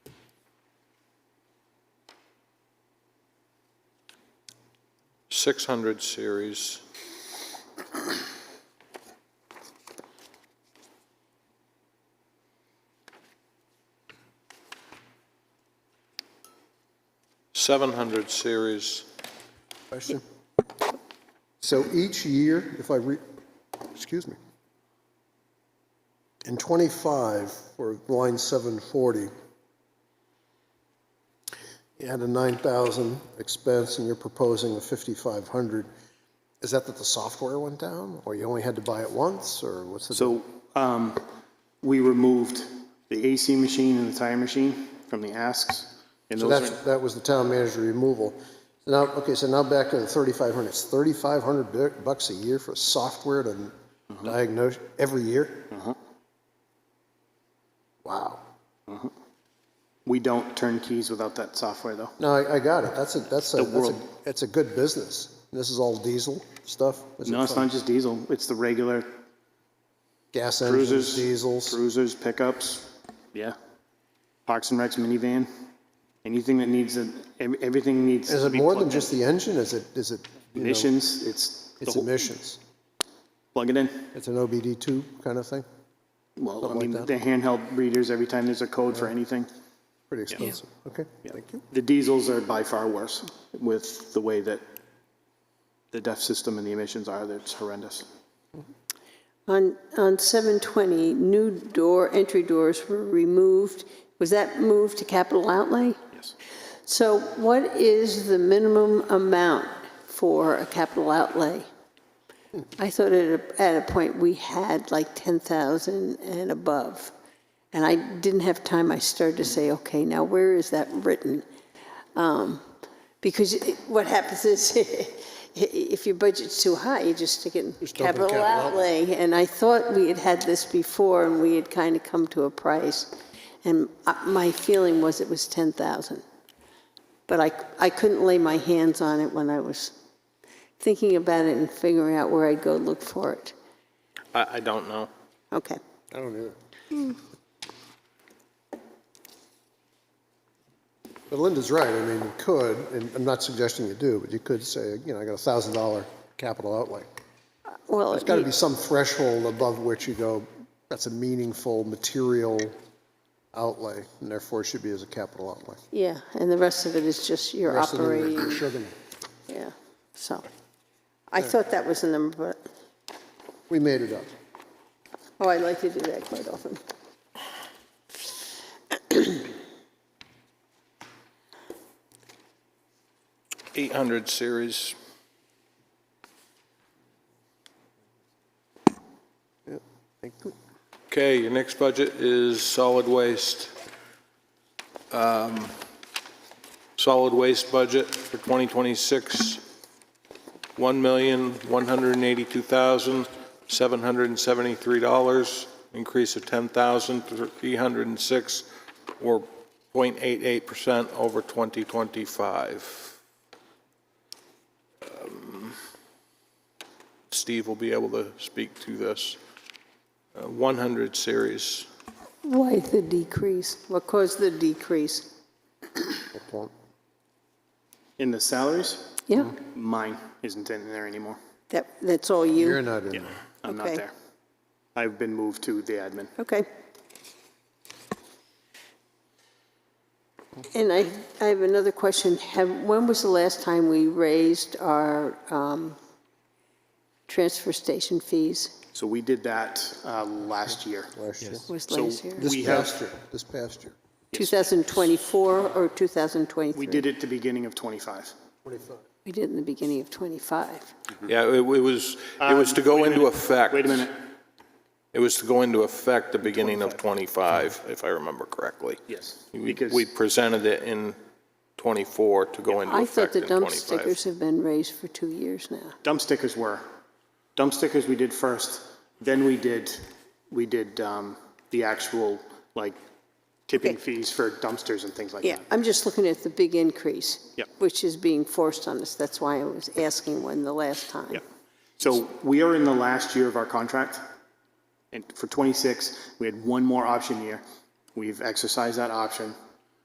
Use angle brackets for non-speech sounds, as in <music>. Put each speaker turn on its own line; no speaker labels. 600 series. Seven hundred series,
Question? So each year, if I re, excuse me, in 25, for line 740, you had a 9,000 expense and you're proposing a 5,500. Is that that the software went down, or you only had to buy it once, or what's the?
So um, we removed the AC machine and the tire machine from the asks. And
So
those
that's,
are,
that was the town manager removal. Now, okay, so now back to the 3,500. It's 3,500 bu- bucks a year for software to
Mm-hmm.
diagnose every year? Wow.
we don't turn keys without that software, though.
No, I, I got it. That's a, that's a,
The
that's a,
world.
it's a good business. This is all diesel stuff? Is it
No, it's
from
not just diesel, it's the regular
Gas
cruisers.
engines, diesels?
Cruisers, pickups, yeah. Parks and Recs minivan, anything that needs, a- ev- everything needs.
Is
to
it
be
more than
plugged in.
just the engine? Is it, is it, you know,
Emissions, it's, the
it's
whole-
emissions?
plug it in.
It's an OBD2 kind of thing?
Well, I
Something like that.
mean, the handheld readers, every time there's a code for anything.
Pretty expensive. Okay, thank you.
The diesels are by far worse with the way that the DEF system and the emissions are, that's horrendous.
On, on 720, new door, entry doors were removed. Was that moved to capital outlay?
Yes.
So what is the minimum amount for a capital outlay? I thought at a, at a point we had like 10,000 and above. And I didn't have time, I started to say, okay, now where is that written? Um, Because it- what happens is, <laughs> if your budget's too high, you just stick it in
dump it in
capital
capital
outlay. And I thought we had had this before, and we had kind of come to a price. And uh, my feeling was it was 10,000. But I, I couldn't lay my hands on it when I was thinking about it and figuring out where I'd go look for it.
I, I don't know.
Okay.
I don't either. But Linda's right, I mean, you could, and I'm not suggesting you do, but you could say, you know, I got a thousand dollar capital outlay.
Well,
There's gotta be some threshold above which you go, that's a meaningful material outlay, and therefore it should be as a capital outlay.
yeah, and the rest of it is just your
Rest of them are
operating,
sugar.
yeah, so. I thought that was the number, but,
We made it up.
oh, I like to do that quite often.
Eight hundred series,
Thank you.
Okay, your next budget is solid waste. Um, Solid waste budget for 2026, $1,182,773, increase of 10,306, or 0.88% over 2025. Um, Steve will be able to speak to this. Uh, 100 series.
Why the decrease? What caused the decrease?
Good point.
In the salaries,
Yeah,
mine isn't in there anymore.
that, that's all
You're
you?
not in there.
I'm not
Okay.
there. I've been moved to the admin.
Okay. And I, I have another question. Have, when was the last time we raised our um, transfer station fees?
So we did that uh, last year.
last year.
Was
So
last year?
This
we have-
past year, this past year.
2024 or 2023?
We did it at the beginning of '25.
We did in the beginning of '25.
Yeah, it it was, it was to go into effect.
Uh, Wait a minute.
It was to go into effect the beginning of '25, if I remember correctly.
Yes.
We
Because
we presented it in '24 to go into
I
effect
thought the
in
dump stickers
'25.
have been raised for two years now.
dump stickers were, dump stickers we did first, then we did, we did um, the actual, like, tipping fees for dumpsters and things like
Yeah,
that.
I'm just looking at the big increase.
Yep.
Which is being forced on us. That's why I was asking when the last time.
Yeah. So we are in the last year of our contract. And for 26, we had one more option year. We've exercised that option.